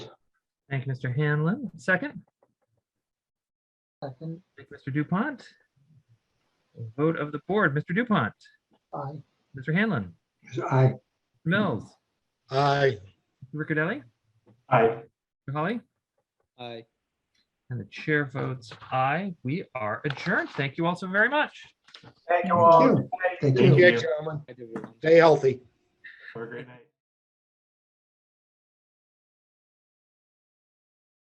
Thank you, Mr. Hanlon. Second, Second, thank you, Mr. Dupont. Vote of the board, Mr. Dupont, aye. Mr. Hanlon, Aye. Mills, Aye. Riccadelli, Aye. Mr. Holly, Aye. and the chair votes aye. We are adjourned. Thank you all so very much. Thank you all. Thank you. Take care, gentlemen. Stay healthy.